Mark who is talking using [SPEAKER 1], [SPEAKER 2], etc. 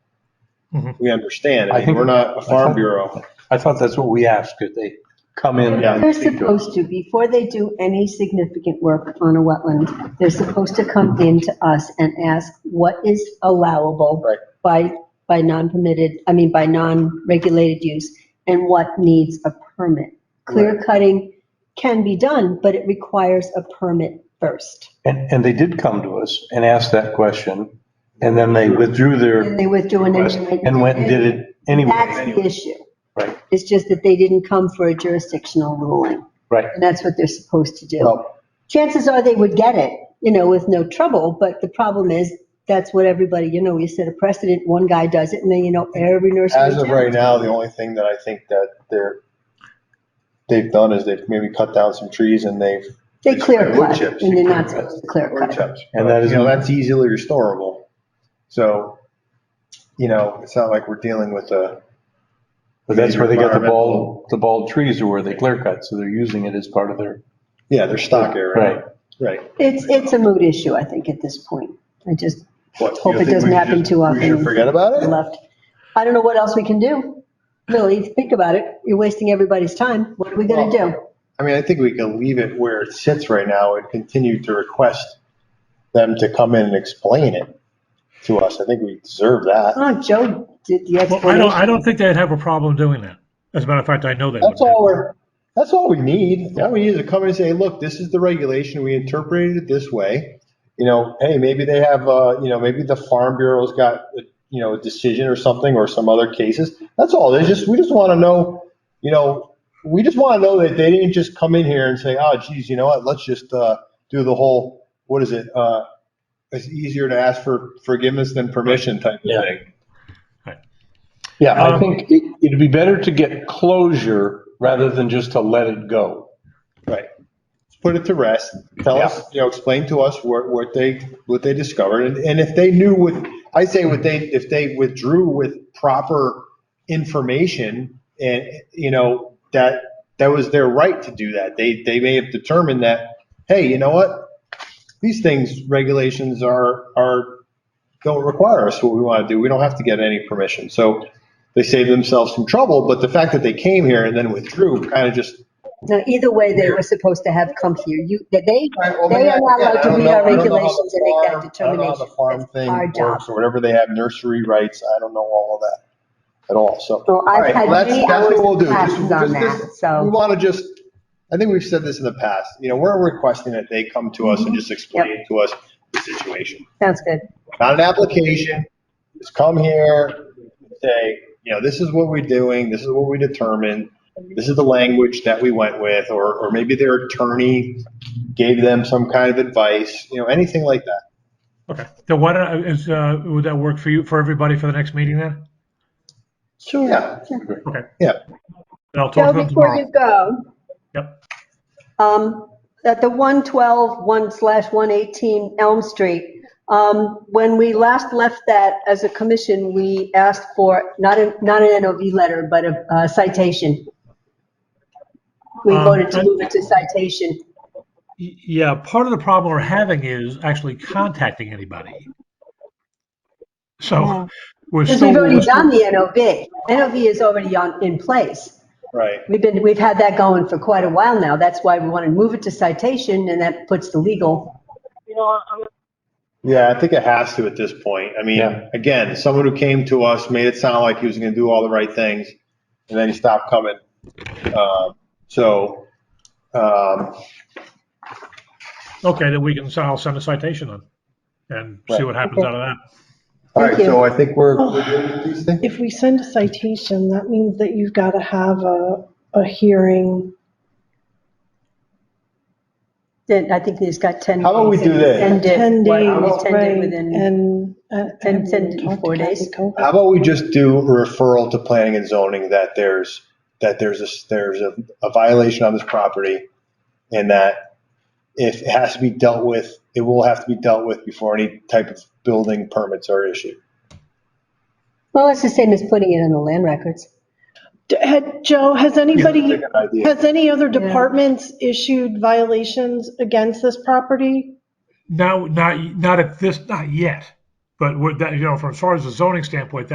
[SPEAKER 1] Mhm.
[SPEAKER 2] we understand.
[SPEAKER 3] I
[SPEAKER 2] I mean,
[SPEAKER 3] think-
[SPEAKER 2] we're not a
[SPEAKER 3] I
[SPEAKER 2] farm
[SPEAKER 3] think-
[SPEAKER 2] bureau.
[SPEAKER 3] I thought that's what we asked, could they come in?
[SPEAKER 2] Yeah.
[SPEAKER 4] They're supposed to, before they do any significant work on a wetland, they're supposed to come in to us and ask what is allowable
[SPEAKER 2] Right.
[SPEAKER 4] by, by non-permitted, I mean, by non-regulated use, and what needs a permit. Clear cutting can be done, but it requires a permit first.
[SPEAKER 3] And, and they did come to us and asked that question, and then they withdrew their
[SPEAKER 4] And they withdrew an
[SPEAKER 3] request
[SPEAKER 4] engineer.
[SPEAKER 3] and went and did it
[SPEAKER 4] That's the
[SPEAKER 3] anyway.
[SPEAKER 4] issue.
[SPEAKER 3] Right.
[SPEAKER 4] It's just that they didn't come for a jurisdictional ruling.
[SPEAKER 3] Right.
[SPEAKER 4] And that's what they're supposed to do.
[SPEAKER 3] Well,
[SPEAKER 4] chances are they would get it, you know, with no trouble, but the problem is, that's what everybody, you know, you set a precedent, one guy does it, and then, you know, every nursery.
[SPEAKER 2] As of
[SPEAKER 4] town-
[SPEAKER 2] right now, the only thing that I think that they're, they've done is they've maybe cut down some trees and they've.
[SPEAKER 4] They clear
[SPEAKER 2] wood
[SPEAKER 4] cut,
[SPEAKER 2] chips.
[SPEAKER 4] and they're not supposed to clear
[SPEAKER 2] Wood
[SPEAKER 4] cut.
[SPEAKER 2] chips.
[SPEAKER 3] And that is-
[SPEAKER 2] You know, that's easily restorable. So, you know, it's not like we're dealing with a,
[SPEAKER 3] But that's where they got the bald, the bald trees are where they clear cut, so they're using it as part of their,
[SPEAKER 2] yeah, their stock area.
[SPEAKER 3] right.
[SPEAKER 2] Right.
[SPEAKER 4] It's, it's a mood issue, I think, at this point. I just
[SPEAKER 2] What,
[SPEAKER 4] Hope
[SPEAKER 2] you
[SPEAKER 4] it
[SPEAKER 2] think
[SPEAKER 4] doesn't
[SPEAKER 2] we
[SPEAKER 4] happen
[SPEAKER 2] just-
[SPEAKER 4] too
[SPEAKER 2] We should
[SPEAKER 4] often.
[SPEAKER 2] forget about it?
[SPEAKER 4] left. I don't know what else we can do. Really, think about it. You're wasting everybody's time. What are we gonna do?
[SPEAKER 2] I mean, I think we can leave it where it sits right now and continue to request them to come in and explain it to us. I think we deserve that.
[SPEAKER 4] Oh, Joe did the
[SPEAKER 1] Well, I don't,
[SPEAKER 4] explanation.
[SPEAKER 1] I don't think they'd have a problem doing that. As a matter of fact, I know they wouldn't.
[SPEAKER 2] That's all we're, that's all we need. All we need is to come in and say, look, this is the regulation. We interpreted it this way. You know, hey, maybe they have, uh, you know, maybe the Farm Bureau's got, you know, a decision or something or some other cases. That's all. They just, we just want to know, you know, we just want to know that they didn't just come in here and say, oh, geez, you know what? Let's just, uh, do the whole, what is it? Uh, it's easier to ask for forgiveness than permission type
[SPEAKER 3] Yeah.
[SPEAKER 2] of thing.
[SPEAKER 3] Yeah, I
[SPEAKER 1] Um,
[SPEAKER 3] think it- it'd be better to get closure rather than just to let it go.
[SPEAKER 2] Right. Just Put it to rest. Tell us, you know, explain to us what, what they, what they discovered. And, and if they knew what, I say what they, if they withdrew with proper information and, you know, that, that was their right to do that. They, they may have determined that, hey, you know what? These things, regulations are, are, don't require us what we want to do. We don't have to get any permission. So they saved themselves some trouble, but the fact that they came here and then withdrew kind of just
[SPEAKER 4] Now, either way, they were supposed to have come here. You, that they
[SPEAKER 2] Right, well,
[SPEAKER 4] They
[SPEAKER 2] maybe
[SPEAKER 4] are
[SPEAKER 2] I-
[SPEAKER 4] not
[SPEAKER 2] yeah,
[SPEAKER 4] allowed
[SPEAKER 2] I
[SPEAKER 4] to
[SPEAKER 2] don't
[SPEAKER 4] read
[SPEAKER 2] know-
[SPEAKER 4] our
[SPEAKER 2] I don't know how
[SPEAKER 4] regulations
[SPEAKER 2] the
[SPEAKER 4] and make that
[SPEAKER 2] farm- I don't know how the
[SPEAKER 4] determination.
[SPEAKER 2] farm
[SPEAKER 4] That's
[SPEAKER 2] thing
[SPEAKER 4] our
[SPEAKER 2] works
[SPEAKER 4] job.
[SPEAKER 2] Or whatever they have nursery rights, I don't know all of that at all, so.
[SPEAKER 4] Well, I've
[SPEAKER 2] All right,
[SPEAKER 4] had
[SPEAKER 2] well, that's-
[SPEAKER 4] many
[SPEAKER 2] that's what
[SPEAKER 4] hours
[SPEAKER 2] we'll
[SPEAKER 4] of
[SPEAKER 2] do. Just-
[SPEAKER 4] classes on
[SPEAKER 2] just-
[SPEAKER 4] that, so-
[SPEAKER 2] We want to just, I think we've said this in the past, you know, we're requesting that they come to
[SPEAKER 4] Mm-hmm.
[SPEAKER 2] us and just explain to us the situation.
[SPEAKER 4] Sounds good.
[SPEAKER 2] Not an application, just come here, say, you know, this is what we're doing, this is what we determined, this is the language that we went with, or, or maybe their attorney gave them some kind of advice, you know, anything like that.
[SPEAKER 1] Okay, then why don't, I- is, uh, would that work for you, for everybody for the next meeting then?
[SPEAKER 2] Sure. Yeah,
[SPEAKER 1] Okay.
[SPEAKER 2] Yeah.
[SPEAKER 1] Then I'll talk
[SPEAKER 4] Joe,
[SPEAKER 1] to them
[SPEAKER 4] before you
[SPEAKER 1] tomorrow.
[SPEAKER 4] go,
[SPEAKER 1] Yep,
[SPEAKER 4] um, at the 112, 1 slash 118 Elm Street, um, when we last left that as a commission, we asked for, not a, not an NOV letter, but a uh, citation. We
[SPEAKER 1] Um,
[SPEAKER 4] voted
[SPEAKER 1] I-
[SPEAKER 4] to move it to citation.
[SPEAKER 1] Y- yeah, part of the problem we're having is actually contacting anybody. So, we're
[SPEAKER 4] Because
[SPEAKER 1] still.
[SPEAKER 4] we've already
[SPEAKER 1] we're still-
[SPEAKER 4] done the NOV. NOV is already on, in place.
[SPEAKER 2] Right.
[SPEAKER 4] We've been, we've had that going for quite a while now. That's why we want to move it to citation and that puts the legal.
[SPEAKER 2] Yeah, I think it has to at this point. I mean,
[SPEAKER 3] Yeah.
[SPEAKER 2] again, someone who came to us made it sound like he was going to do all the right things, and then he stopped coming. Um, so, um,
[SPEAKER 1] Okay, then we can, so I'll send a citation then and see
[SPEAKER 2] Right.
[SPEAKER 1] what happens
[SPEAKER 4] Okay.
[SPEAKER 1] out of that.
[SPEAKER 2] all right,
[SPEAKER 4] Thank you.
[SPEAKER 2] so I think we're, we're good with these things.
[SPEAKER 5] If we send a citation, that means that you've got to have a, a hearing.
[SPEAKER 4] Then I think he's got 10.
[SPEAKER 2] How about we
[SPEAKER 4] days
[SPEAKER 2] do this?
[SPEAKER 4] and it-
[SPEAKER 5] 10
[SPEAKER 4] what,
[SPEAKER 5] days,
[SPEAKER 4] ten
[SPEAKER 5] right,
[SPEAKER 4] day within-
[SPEAKER 5] and. and-
[SPEAKER 4] ten-
[SPEAKER 5] and
[SPEAKER 4] ten to
[SPEAKER 5] talk to
[SPEAKER 4] four
[SPEAKER 5] Kathy
[SPEAKER 4] days.
[SPEAKER 5] Koch.
[SPEAKER 2] How about we just do a referral to planning and zoning that there's, that there's a, there's a, a violation on this property, and that if it has to be dealt with, it will have to be dealt with before any type of building permits are issued.
[SPEAKER 4] Well, that's the same as putting it on the land records.
[SPEAKER 5] D- Had, Joe, has anybody,
[SPEAKER 2] Good idea.
[SPEAKER 5] has any other departments issued violations against this property?
[SPEAKER 1] No, not, not at this, not yet, but we're, that, you know, from as far as the zoning standpoint,